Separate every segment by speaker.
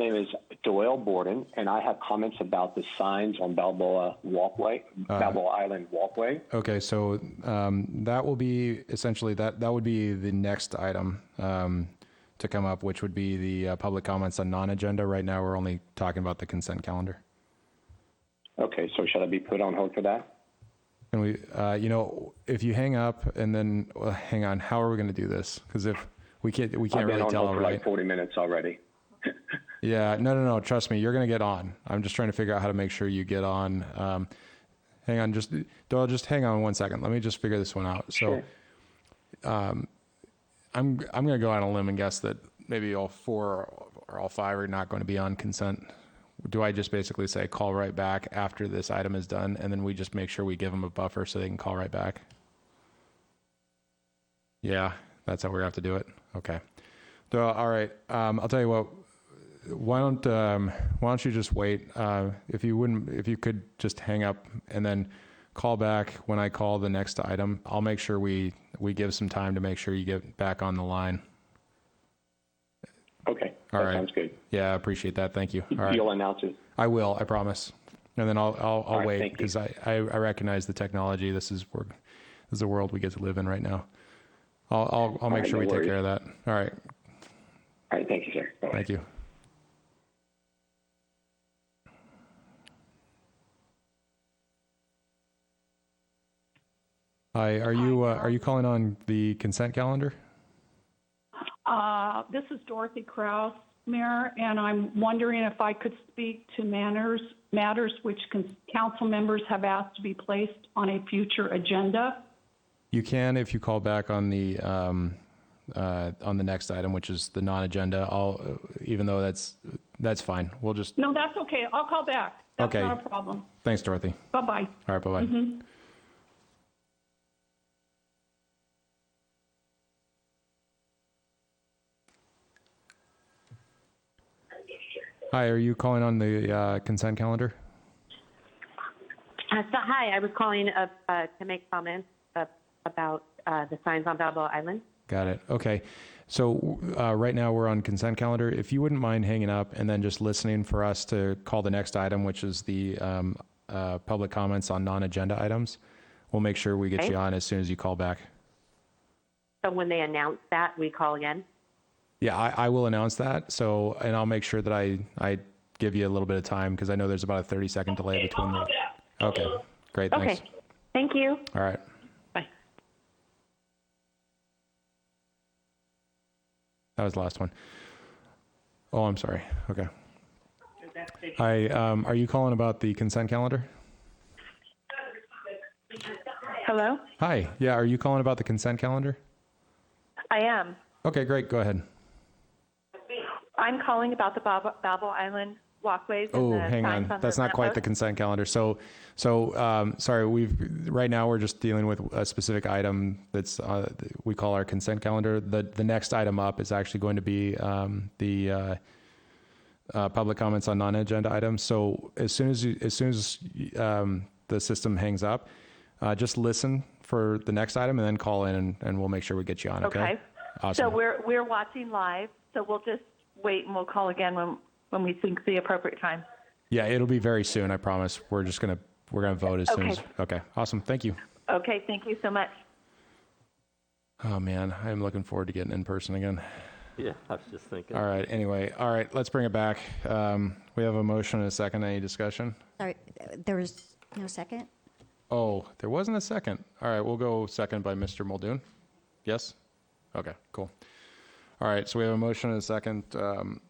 Speaker 1: name is Doyle Borden, and I have comments about the signs on Balboa Walkway,
Speaker 2: Uh-huh.
Speaker 1: Balboa Island Walkway.
Speaker 2: Okay, so um, that will be essentially that that would be the next item um, to come up, which would be the uh, public comments on non-agenda. Right now, we're only talking about the consent calendar.
Speaker 1: Okay, so should I be put on hold for that?
Speaker 2: Can we, uh, you know, if you hang up and then well, hang on, how are we going to do this? Because if we can't, we can't
Speaker 1: I've been
Speaker 2: really
Speaker 1: on
Speaker 2: tell,
Speaker 1: hold for
Speaker 2: right?
Speaker 1: like 40 minutes already.
Speaker 2: Yeah, no, no, no. Trust me, you're going to get on. I'm just trying to figure out how to make sure you get on. Um, hang on, just Doyle, just hang on one second. Let me just figure this one out. So, um, I'm I'm going to go out on a limb and guess that maybe all four or all five are not going to be on consent. Do I just basically say call right back after this item is done, and then we just make sure we give them a buffer so they can call right back? Yeah, that's how we're gonna have to do it. Okay. Doyle, all right. Um, I'll tell you what why don't um, why don't you just wait? Uh, if you wouldn't, if you could just hang up and then call back when I call the next item, I'll make sure we we give some time to make sure you get back on the line.
Speaker 1: Okay,
Speaker 2: All
Speaker 1: that
Speaker 2: right.
Speaker 1: sounds good.
Speaker 2: Yeah, I appreciate that. Thank you. All right,
Speaker 1: You'll announce it.
Speaker 2: I will. I promise. And then I'll I'll, I'll
Speaker 1: right,
Speaker 2: wait
Speaker 1: thank you.
Speaker 2: because I, I I recognize the technology. This is work. This is the world we get to live in right now. I'll I'll, I'll make
Speaker 1: right,
Speaker 2: sure
Speaker 1: no
Speaker 2: we take
Speaker 1: worries.
Speaker 2: care of that. All right.
Speaker 1: All right, thank you, sir. Bye-bye.
Speaker 2: Thank you. Hi, are you, uh, are you calling on the consent calendar?
Speaker 3: Uh, This is Dorothy Kraus, Mayor, and I'm wondering if I could speak to manners, matters which cons- council members have asked to be placed on a future agenda.
Speaker 2: You can if you call back on the, um, uh, on the next item, which is the non-agenda. I'll, even though that's, that's fine. We'll just,
Speaker 3: No, that's okay. I'll call back. That's
Speaker 2: Okay.
Speaker 3: not a problem.
Speaker 2: thanks, Dorothy.
Speaker 3: Bye-bye.
Speaker 2: All right, bye-bye. Hi, are you calling on the uh, consent calendar?
Speaker 4: Uh, So, hi, I was calling uh, uh, to make comments uh, about uh, the signs on Balboa Island.
Speaker 2: Got it. Okay. So uh, right now we're on consent calendar. If you wouldn't mind hanging up and then just listening for us to call the next item, which is the um, uh, public comments on non-agenda items, we'll make sure we get
Speaker 4: Okay.
Speaker 2: you on as soon as you call back.
Speaker 4: So when they announce that, we call again.
Speaker 2: Yeah, I, I will announce that. So, and I'll make sure that I, I give you a little bit of time because I know there's about a 30 second delay between the. Okay, great.
Speaker 4: Okay.
Speaker 2: Thanks.
Speaker 4: Thank you.
Speaker 2: All right.
Speaker 4: Bye.
Speaker 2: That was the last one. Oh, I'm sorry. Okay. Hi, um, are you calling about the consent calendar?
Speaker 5: Hello?
Speaker 2: Hi. Yeah, are you calling about the consent calendar?
Speaker 5: I am.
Speaker 2: Okay, great. Go ahead.
Speaker 5: I'm calling about the Bab- Babel Island walkways. and
Speaker 2: Oh,
Speaker 5: the
Speaker 2: hang
Speaker 5: signs
Speaker 2: on.
Speaker 5: the
Speaker 2: That's not quite the
Speaker 5: lampposts.
Speaker 2: consent calendar. So, so, um, sorry, we've, right now, we're just dealing with a specific item that's, uh, th- we call our consent calendar. The, the next item up is actually going to be, um, the, uh, uh, public comments on non-agenda items. So as soon as you, as soon as, um, the system hangs up, uh, just listen for the next item and then call in and, and we'll make sure we get you on. Okay.
Speaker 5: Okay. So
Speaker 2: Awesome.
Speaker 5: we're, we're watching live, so we'll just wait and we'll call again when, when we think the appropriate time.
Speaker 2: Yeah, it'll be very soon. I promise. We're just going to, we're going to vote as soon
Speaker 5: Okay.
Speaker 2: as, okay. Awesome. Thank you.
Speaker 5: Okay, thank you so much.
Speaker 2: Oh man, I'm looking forward to getting in person again.
Speaker 6: Yeah, I was just thinking.
Speaker 2: All right. Anyway, all right. Let's bring it back. Um, we have a motion and a second. Any discussion?
Speaker 7: Sorry, there was no second?
Speaker 2: Oh, there wasn't a second. All right, we'll go second by Mr. Muldoon. Yes. Okay. Cool. All right. So we have a motion and a second. Um,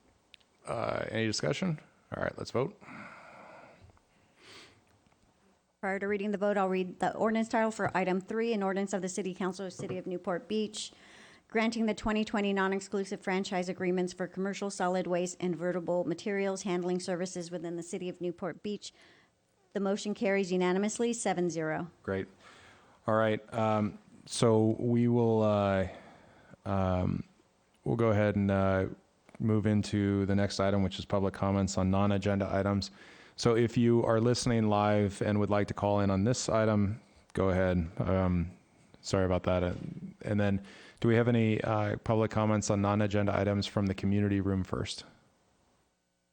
Speaker 2: uh, any discussion? All right. Let's vote.
Speaker 7: Prior to reading the vote, I'll read the ordinance title for item three, an ordinance of the City Council of City of Newport Beach, granting the 2020 non-exclusive franchise agreements for commercial solid waste and vertible materials handling services within the City of Newport Beach. The motion carries unanimously, 7-0.
Speaker 2: Great. All right. Um, so we will uh, um, we'll go ahead and uh, move into the next item, which is public comments on non-agenda items. So if you are listening live and would like to call in on this item, go ahead. Um, sorry about that. Uh, And then, do we have any uh, public comments on non-agenda items from the community room first?